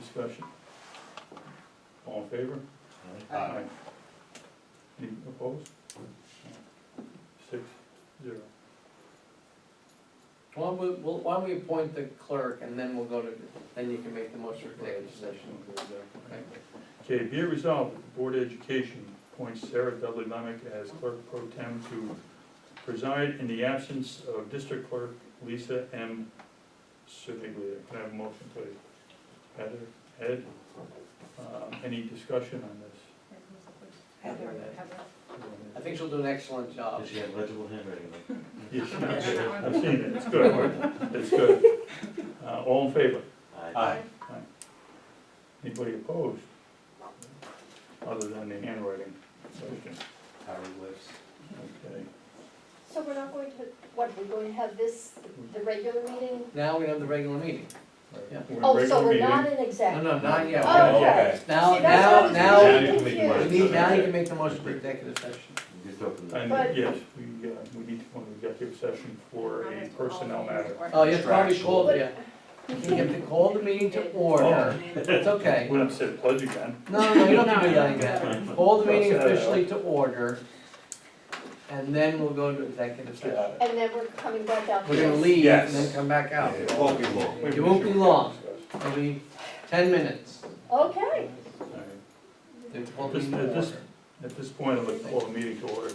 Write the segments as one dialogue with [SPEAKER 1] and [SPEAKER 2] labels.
[SPEAKER 1] discussion? All in favor?
[SPEAKER 2] Aye.
[SPEAKER 1] Any opposed? Six, zero.
[SPEAKER 3] Why don't we, well, why don't we appoint the clerk and then we'll go to, then you can make the motion for executive session. Okay.
[SPEAKER 1] Okay, be it resolved that the Board of Education appoints Sarah Dudley Lemick as clerk pro tem to preside in the absence of District Clerk Lisa M. Siviglia. Can I have a motion, please? Heather, Ed, um, any discussion on this?
[SPEAKER 4] Heather,
[SPEAKER 3] I think she'll do an excellent job.
[SPEAKER 2] Does she have legible handwriting? like-
[SPEAKER 1] Yes, I've seen it, it's good, it's good. Uh, all in favor?
[SPEAKER 2] Aye.
[SPEAKER 1] Anybody opposed? Other than the handwriting question,
[SPEAKER 2] Hieroglyphs.
[SPEAKER 1] okay.
[SPEAKER 4] So we're not going to, what, we're going to have this, the regular meeting?
[SPEAKER 3] Now we have the regular meeting. Yeah.
[SPEAKER 1] We're in
[SPEAKER 4] Oh,
[SPEAKER 1] regular
[SPEAKER 4] so we're
[SPEAKER 1] meeting.
[SPEAKER 4] not in
[SPEAKER 3] No,
[SPEAKER 4] exec.
[SPEAKER 3] no, not yet.
[SPEAKER 4] Oh, okay.
[SPEAKER 2] Oh, Okay.
[SPEAKER 3] Now,
[SPEAKER 4] See, that's
[SPEAKER 3] now-
[SPEAKER 4] why I was
[SPEAKER 3] now-
[SPEAKER 4] really
[SPEAKER 2] Now you can make
[SPEAKER 4] confused.
[SPEAKER 2] one.
[SPEAKER 3] We need, now you can make the motion for executive session.
[SPEAKER 2] Just open the.
[SPEAKER 1] And,
[SPEAKER 4] But-
[SPEAKER 1] yes, we, uh, we need to go into executive session for a personnel matter.
[SPEAKER 3] Oh, you probably called, yeah.
[SPEAKER 4] But-
[SPEAKER 3] You have to call the meeting to
[SPEAKER 2] Oh.
[SPEAKER 5] um,
[SPEAKER 3] order. It's okay.
[SPEAKER 1] When I'm said pledge again,
[SPEAKER 3] No, no, no, you don't have to do that again. Call the meeting officially to order, and then we'll go to executive session.
[SPEAKER 4] And then we're coming back out.
[SPEAKER 3] We're gonna leave and then come back out.
[SPEAKER 2] It won't be long.
[SPEAKER 1] we-
[SPEAKER 3] It won't be long. Maybe ten minutes.
[SPEAKER 4] Okay,
[SPEAKER 1] All right.
[SPEAKER 3] to call the meeting
[SPEAKER 1] At
[SPEAKER 3] to
[SPEAKER 1] this-
[SPEAKER 3] order.
[SPEAKER 1] At this point, I'd like to call the meeting to order.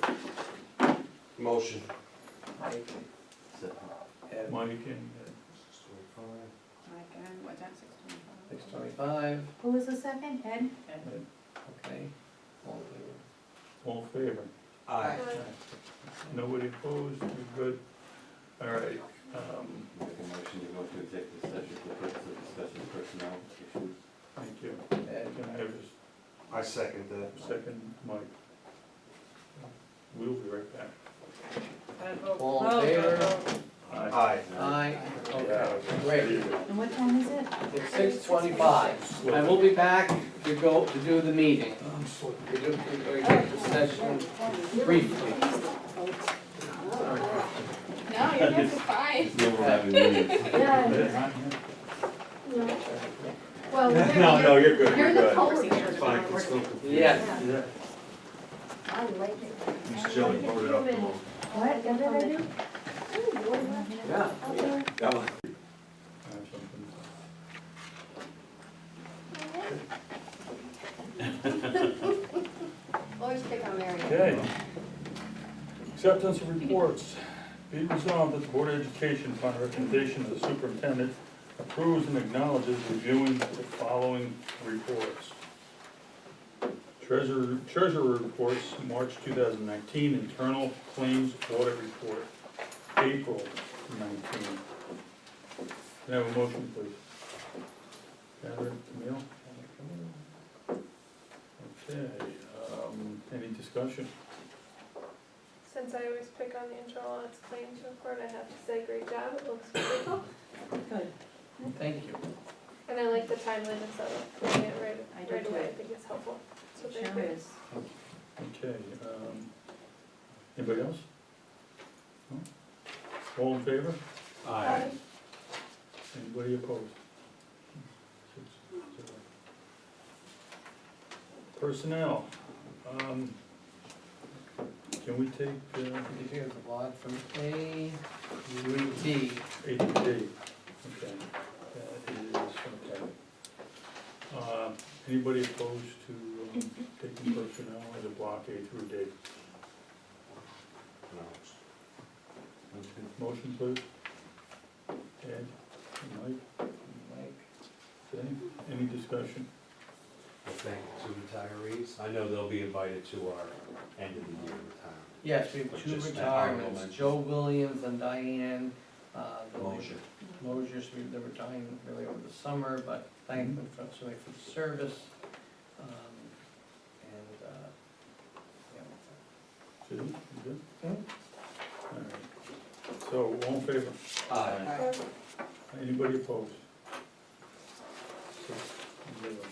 [SPEAKER 2] Motion. uh,
[SPEAKER 3] At
[SPEAKER 1] Mike and,
[SPEAKER 3] Six twenty-five,
[SPEAKER 5] Who was the second, Ed?
[SPEAKER 3] okay. All in favor?
[SPEAKER 1] uh, all in favor?
[SPEAKER 2] Aye.
[SPEAKER 1] Nobody opposed, we're good. All right, um,
[SPEAKER 2] Make a motion to go into executive session for the purpose of discussing personnel issues.
[SPEAKER 1] thank you.
[SPEAKER 3] Ed,
[SPEAKER 1] Can I have a
[SPEAKER 2] I second that.
[SPEAKER 1] second, Mike? We'll be right back.
[SPEAKER 3] All in favor?
[SPEAKER 2] Aye.
[SPEAKER 4] Uh,
[SPEAKER 3] Aye, okay, great.
[SPEAKER 1] Great.
[SPEAKER 5] And what time is it?
[SPEAKER 3] It's six twenty-five. I will be back to go, to do the meeting. We do, we go executive session briefly.
[SPEAKER 5] No, you're not surprised.
[SPEAKER 2] No, we're having meetings.
[SPEAKER 4] yeah, no. Well, we're
[SPEAKER 2] No, no,
[SPEAKER 4] gonna-
[SPEAKER 2] you're good,
[SPEAKER 4] you're
[SPEAKER 2] you're
[SPEAKER 4] the
[SPEAKER 2] good.
[SPEAKER 4] culprit.
[SPEAKER 2] Fine, it's still confusing.
[SPEAKER 3] Yes.
[SPEAKER 4] I like it.
[SPEAKER 2] Miss Jelly, vote it up tomorrow.
[SPEAKER 5] What, what did I do?
[SPEAKER 4] Oh, you're right.
[SPEAKER 3] Yeah.
[SPEAKER 4] Okay.
[SPEAKER 2] That
[SPEAKER 1] I
[SPEAKER 2] one.
[SPEAKER 1] have something.
[SPEAKER 4] Always pick on Mary.
[SPEAKER 1] Okay. Acceptance of reports. Be resolved that the Board of Education, upon recommendation of the superintendent, approves and acknowledges reviewing the following reports. Treasurer, treasurer reports, March two thousand nineteen, internal claims audit report, April nineteen. Can I have a motion, please? Heather, Camille? Okay, um, any discussion?
[SPEAKER 6] Since I always pick on the internal audits claims report, I have to say, great job, it looks wonderful.
[SPEAKER 3] Thank you.
[SPEAKER 6] And I like the timeliness of it, putting it
[SPEAKER 5] I
[SPEAKER 6] right,
[SPEAKER 5] do
[SPEAKER 6] right away, I
[SPEAKER 5] too.
[SPEAKER 6] think it's helpful. So thank
[SPEAKER 5] Sure
[SPEAKER 6] you.
[SPEAKER 5] is.
[SPEAKER 1] Okay, um, anybody else? No? All in favor?
[SPEAKER 2] Aye.
[SPEAKER 1] Anybody opposed? Six, zero. Personnel, um, can we take, uh,
[SPEAKER 3] Did you have the blog from A, U, D?
[SPEAKER 1] eight D? Okay, that is, okay. Uh, anybody opposed to um, taking personnel as a block A through D?
[SPEAKER 2] No. That's good.
[SPEAKER 1] Motion, please. Ed, Mike?
[SPEAKER 3] Mike?
[SPEAKER 1] Okay, any discussion?
[SPEAKER 7] Well, thank you to retirees. I know they'll be invited to our end of the year retirement.
[SPEAKER 3] Yes, we have two
[SPEAKER 7] Just that honorable
[SPEAKER 3] retirements,
[SPEAKER 7] mention.
[SPEAKER 3] Joe Williams and Diane, uh, the
[SPEAKER 7] Motion.
[SPEAKER 3] Mosier's, we- they're retiring really over the summer, but thank them for, so much for the service. Um, And, uh, yeah,
[SPEAKER 1] Sue, you good?
[SPEAKER 3] Hmm?
[SPEAKER 1] All right. So, all in favor?
[SPEAKER 7] Aye.
[SPEAKER 6] Aye.
[SPEAKER 1] Anybody opposed? Six, zero.